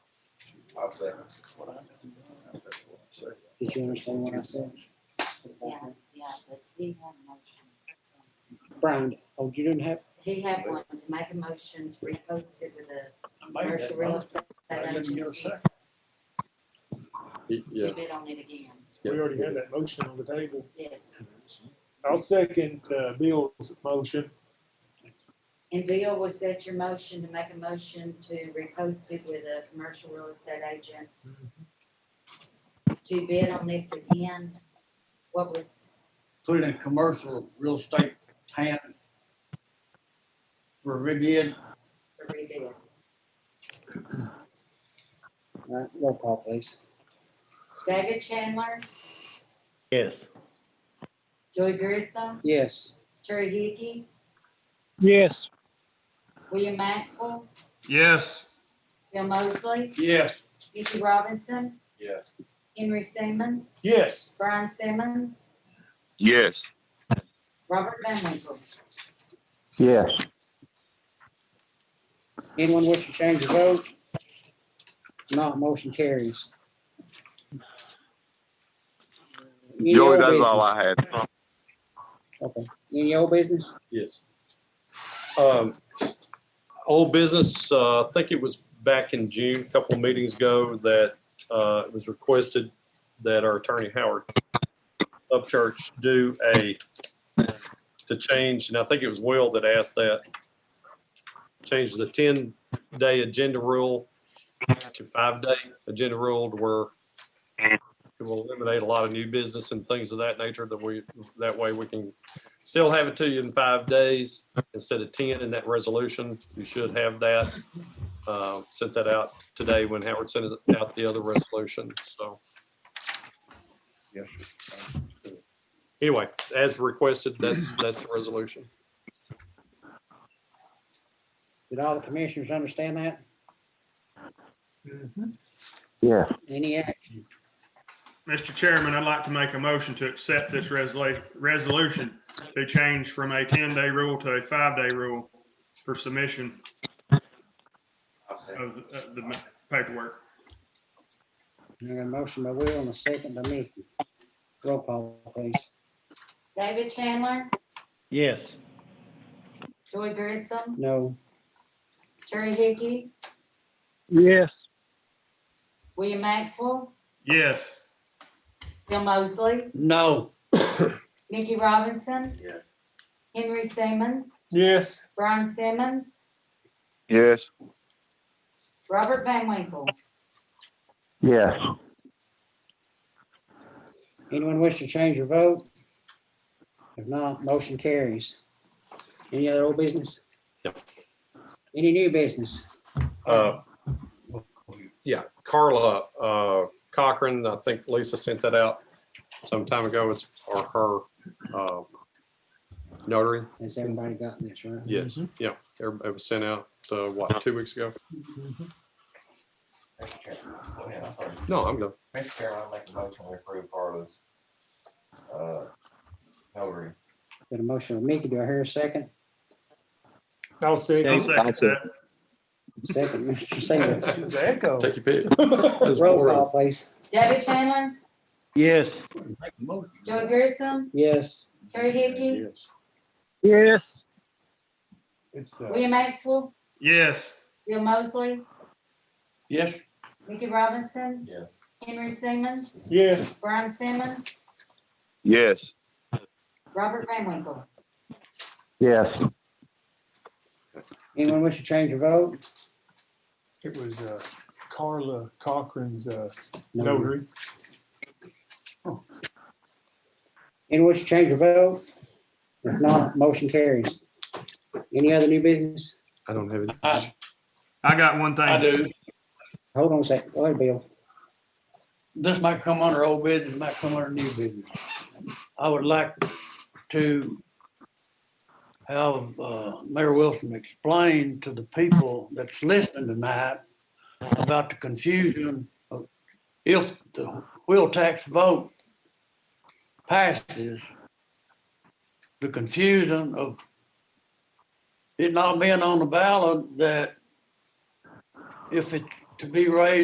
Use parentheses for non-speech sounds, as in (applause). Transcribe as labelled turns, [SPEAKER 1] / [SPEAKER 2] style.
[SPEAKER 1] I'll second.
[SPEAKER 2] Did you understand what I said?
[SPEAKER 3] Yeah, yeah, but he had a motion.
[SPEAKER 2] Brian, oh, you didn't have,
[SPEAKER 3] He had one to make a motion to repost it with a
[SPEAKER 4] I made
[SPEAKER 3] commercial
[SPEAKER 4] that
[SPEAKER 3] real
[SPEAKER 4] motion.
[SPEAKER 3] estate
[SPEAKER 4] I didn't get a
[SPEAKER 3] agency
[SPEAKER 4] second.
[SPEAKER 5] Yeah.
[SPEAKER 3] to bid on it again.
[SPEAKER 6] We already had that motion on the table.
[SPEAKER 3] Yes.
[SPEAKER 6] I'll second uh, Bill's motion.
[SPEAKER 3] And Bill, was that your motion to make a motion to repost it with a commercial real estate agent? To bid on this again? What was,
[SPEAKER 4] Put it in commercial real estate hand for Rivian,
[SPEAKER 3] for rebid?
[SPEAKER 2] all right, roll call please.
[SPEAKER 3] David Chandler,
[SPEAKER 7] Yes.
[SPEAKER 3] Joy Grissom,
[SPEAKER 2] Yes,
[SPEAKER 3] Terry Hickey,
[SPEAKER 7] Yes.
[SPEAKER 3] William Maxwell,
[SPEAKER 8] Yes.
[SPEAKER 3] Bill Mosley,
[SPEAKER 4] yes.
[SPEAKER 3] Mickey Robinson,
[SPEAKER 1] Yes.
[SPEAKER 3] Henry Simmons,
[SPEAKER 6] Yes,
[SPEAKER 3] Brian Simmons,
[SPEAKER 5] Yes.
[SPEAKER 3] Robert Van Winkle.
[SPEAKER 7] Yes.
[SPEAKER 2] anyone wish to change your vote? Not motion carries. Any
[SPEAKER 5] Joey,
[SPEAKER 2] old
[SPEAKER 5] that's all
[SPEAKER 2] business?
[SPEAKER 5] I had.
[SPEAKER 2] Okay, any old business?
[SPEAKER 9] Yes. Um, Old business, uh, I think it was back in June, a couple of meetings ago, that uh, it was requested that our attorney Howard Upchurch do a, to change, and I think it was Will that asked that, change the 10-day agenda rule to five-day agenda rule to where it will eliminate a lot of new business and things of that nature that we, that way we can still have it to you in five days instead of ten in that resolution. You should have that. Uh, Sent that out today when Howard sent it out the other resolution. So
[SPEAKER 1] Yes.
[SPEAKER 9] anyway, as requested, that's, that's the resolution.
[SPEAKER 2] Did all the commissioners understand that?
[SPEAKER 7] Yes.
[SPEAKER 2] Any action?
[SPEAKER 8] Mr. Chairman, I'd like to make a motion to accept this resolution, resolution to change from a 10-day rule to a five-day rule for submission
[SPEAKER 1] I'll second.
[SPEAKER 8] of the- of the paperwork.
[SPEAKER 2] I got a motion by Will and a second by me. Roll call please.
[SPEAKER 3] David Chandler,
[SPEAKER 7] Yes.
[SPEAKER 3] Joy Grissom,
[SPEAKER 2] No,
[SPEAKER 3] Terry Hickey,
[SPEAKER 7] Yes.
[SPEAKER 3] William Maxwell,
[SPEAKER 8] Yes.
[SPEAKER 3] Bill Mosley,
[SPEAKER 4] No,
[SPEAKER 3] Mickey Robinson,
[SPEAKER 1] Yes.
[SPEAKER 3] Henry Simmons,
[SPEAKER 6] yes,
[SPEAKER 3] Brian Simmons,
[SPEAKER 5] Yes.
[SPEAKER 3] Robert Van Winkle.
[SPEAKER 7] Yes.
[SPEAKER 2] anyone wish to change your vote? If not, motion carries. Any other old business?
[SPEAKER 9] Yep.
[SPEAKER 2] Any new business?
[SPEAKER 9] Uh, Yeah, Carla uh, Cochran, I think Lisa sent that out some time ago. It's for her uh, notary.
[SPEAKER 2] Has everybody gotten this, right?
[SPEAKER 9] Yes, yeah. everybody- It was sent out, uh, what, two weeks ago?
[SPEAKER 1] Mr. Chairman, go ahead, I'm sorry.
[SPEAKER 9] No, I'm done.
[SPEAKER 1] Mr. Chairman, I make a motion we approve Carlos. uh, Notary.
[SPEAKER 2] Got a motion of Mickey. Do I hear a second?
[SPEAKER 6] I'll
[SPEAKER 8] I'll
[SPEAKER 6] second.
[SPEAKER 8] second that.
[SPEAKER 2] Second, (laughs) Mr. Singleton.
[SPEAKER 6] It's echo.
[SPEAKER 9] Take your pick. It's
[SPEAKER 2] Roll
[SPEAKER 9] boring.
[SPEAKER 2] call, please.
[SPEAKER 3] David Chandler,
[SPEAKER 7] Yes.
[SPEAKER 4] make a motion.
[SPEAKER 3] Joy Grissom,
[SPEAKER 2] Yes,
[SPEAKER 3] Terry Hickey,
[SPEAKER 7] Yes.
[SPEAKER 6] It's, uh,
[SPEAKER 3] William Maxwell,
[SPEAKER 8] Yes.
[SPEAKER 3] Bill Mosley,
[SPEAKER 4] Yes,
[SPEAKER 3] Mickey Robinson,
[SPEAKER 1] Yes.
[SPEAKER 3] Henry Simmons,
[SPEAKER 6] yes,
[SPEAKER 3] Brian Simmons,
[SPEAKER 5] Yes.
[SPEAKER 3] Robert Van Winkle.
[SPEAKER 7] Yes.
[SPEAKER 2] anyone wish to change your vote?
[SPEAKER 6] it was uh, Carla Cochran's uh, notary.
[SPEAKER 2] Anyone wish to change your vote? If not, motion carries. Any other new business?
[SPEAKER 9] I don't have any.
[SPEAKER 4] I,
[SPEAKER 8] I got one thing.
[SPEAKER 4] I do.
[SPEAKER 2] Hold on a second. Go ahead, Bill.
[SPEAKER 4] This might come under old business, might come under new business. I would like to have uh, Mayor Wilson explain to the people that's listening tonight about the confusion of if the wheel tax vote passes, the confusion of it not being on the ballot that if it's to be raised